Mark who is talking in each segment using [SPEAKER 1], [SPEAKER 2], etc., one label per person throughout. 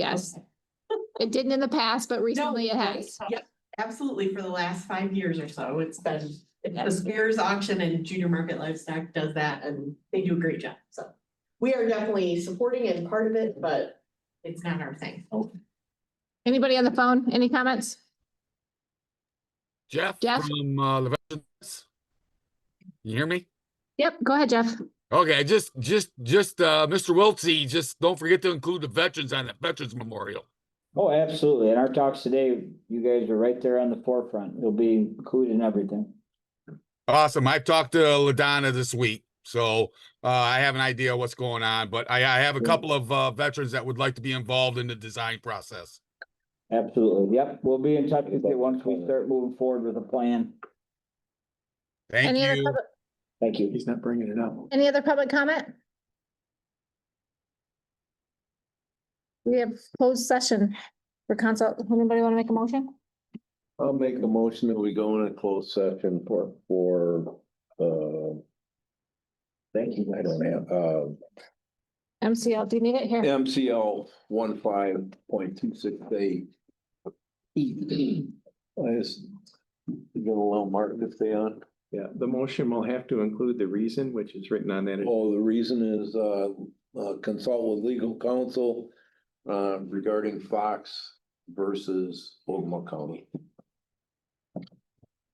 [SPEAKER 1] Yes, it didn't in the past, but recently it has.
[SPEAKER 2] Yep, absolutely. For the last five years or so, it's been, it's the Spears Auction and Junior Market Livestock does that and they do a great job, so. We are definitely supporting and part of it, but it's not our thing.
[SPEAKER 1] Anybody on the phone? Any comments?
[SPEAKER 3] Jeff
[SPEAKER 1] Jeff?
[SPEAKER 3] from uh, Lev- You hear me?
[SPEAKER 1] Yep, go ahead, Jeff.
[SPEAKER 3] Okay, just, just, just, uh, Mr. Wiltsey, just don't forget to include the veterans on that Veterans Memorial.
[SPEAKER 4] Oh, absolutely. In our talks today, you guys are right there on the forefront. You'll be included in everything.
[SPEAKER 3] Awesome. I've talked to LaDonna this week, so, uh, I have an idea what's going on, but I, I
[SPEAKER 1] Mm.
[SPEAKER 3] have a couple of, uh, veterans that would like to be involved in the design process.
[SPEAKER 4] Absolutely. Yep, we'll be in touch with you once we start moving forward with a plan.
[SPEAKER 3] Thank
[SPEAKER 1] Any other,
[SPEAKER 3] you.
[SPEAKER 1] public-
[SPEAKER 4] Thank you.
[SPEAKER 5] not bringing it up.
[SPEAKER 1] any other public comment? We have closed session for consult. Anybody want to make a motion?
[SPEAKER 5] I'll make a motion that we go in a closed session for, for, uh. Thank you, I don't uh, have, uh,
[SPEAKER 1] MCL, do you need it here?
[SPEAKER 5] MCL one five point two six eight. I just. Get a little Martin to stay on.
[SPEAKER 6] Yeah, the motion will have to include the reason, which is written on that.
[SPEAKER 5] Oh, the reason is, uh, uh, consult with legal counsel, uh, regarding Fox versus Oklahoma County.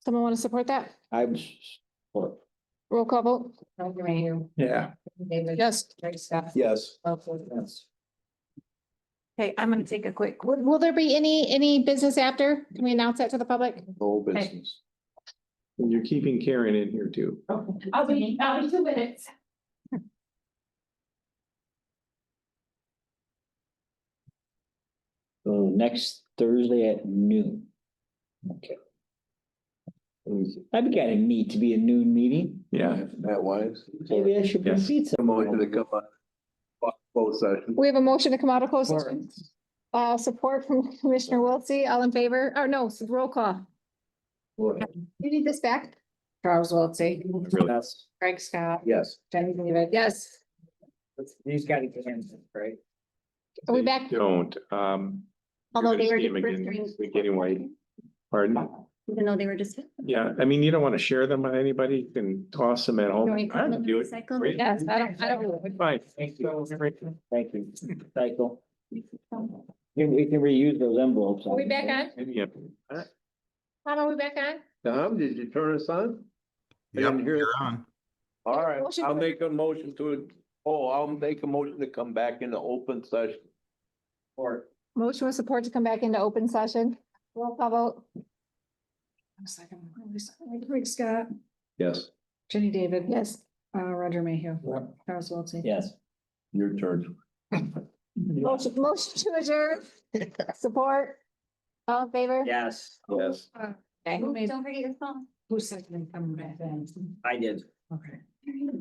[SPEAKER 1] Someone want to support that?
[SPEAKER 4] I'm, s-
[SPEAKER 1] Roll call vote?
[SPEAKER 6] Yeah.
[SPEAKER 1] Yes.
[SPEAKER 5] Yes.
[SPEAKER 7] Okay, I'm gonna take a quick.
[SPEAKER 1] Will, will there be any, any business after? Can we announce that to the public?
[SPEAKER 5] No business.
[SPEAKER 6] And you're keeping Karen in here too.
[SPEAKER 7] I'll be, I'll be two minutes.
[SPEAKER 4] so next Thursday at noon. Okay. I'd be kind of neat to be a noon meeting.
[SPEAKER 6] Yeah.
[SPEAKER 5] Matt Wise.
[SPEAKER 4] Maybe I should
[SPEAKER 6] Yes.
[SPEAKER 4] proceed
[SPEAKER 5] A motion to
[SPEAKER 4] some.
[SPEAKER 5] come on. Both sessions.
[SPEAKER 1] We have a motion to come out of closed session. Uh, support from Commissioner Wiltse, all in favor, or no, s- roll call. You need this back?
[SPEAKER 7] Charles Wiltie,
[SPEAKER 4] Yes.
[SPEAKER 7] Craig Scott,
[SPEAKER 5] Yes.
[SPEAKER 7] Jenny David.
[SPEAKER 1] Yes.
[SPEAKER 4] These gotta get answered, right?
[SPEAKER 1] Are we
[SPEAKER 6] They
[SPEAKER 1] back?
[SPEAKER 6] Don't, um. you're gonna
[SPEAKER 7] Although they were
[SPEAKER 6] see 'em
[SPEAKER 7] just
[SPEAKER 6] again
[SPEAKER 7] first
[SPEAKER 6] next week Anyway, pardon,
[SPEAKER 7] Even though they were just.
[SPEAKER 6] yeah, I mean, you don't want to share them with anybody, you can toss them at home.
[SPEAKER 7] Don't we
[SPEAKER 6] I don't do it.
[SPEAKER 7] recycle?
[SPEAKER 6] Great.
[SPEAKER 1] Yes, I don't, I don't.
[SPEAKER 6] Fine.
[SPEAKER 4] Thank you. Thank you. Cycle. You we can reuse those envelopes.
[SPEAKER 1] Are we back on?
[SPEAKER 6] Yeah.
[SPEAKER 1] Tom, are we back on?
[SPEAKER 5] Tom, did you turn us on? I
[SPEAKER 3] Yep,
[SPEAKER 5] didn't hear-
[SPEAKER 3] you're on.
[SPEAKER 5] All right,
[SPEAKER 1] Motion
[SPEAKER 5] I'll
[SPEAKER 1] for-
[SPEAKER 5] make a motion to, oh, I'll make a motion to come back into open session. Or.
[SPEAKER 1] Motion with support to come back into open session. Roll call vote.
[SPEAKER 7] Craig Scott,
[SPEAKER 5] Yes,
[SPEAKER 7] Jenny David,
[SPEAKER 1] Yes.
[SPEAKER 7] uh, Roger Mayhew.
[SPEAKER 5] Yep.
[SPEAKER 7] Charles Wiltie.
[SPEAKER 4] Yes.
[SPEAKER 5] your turn.
[SPEAKER 1] Motion, motion to adjourn. Support. All in favor?
[SPEAKER 4] Yes,
[SPEAKER 5] Yes.
[SPEAKER 1] Okay.
[SPEAKER 7] Don't forget your phone. Who said they come back then?
[SPEAKER 4] I did.
[SPEAKER 7] Okay.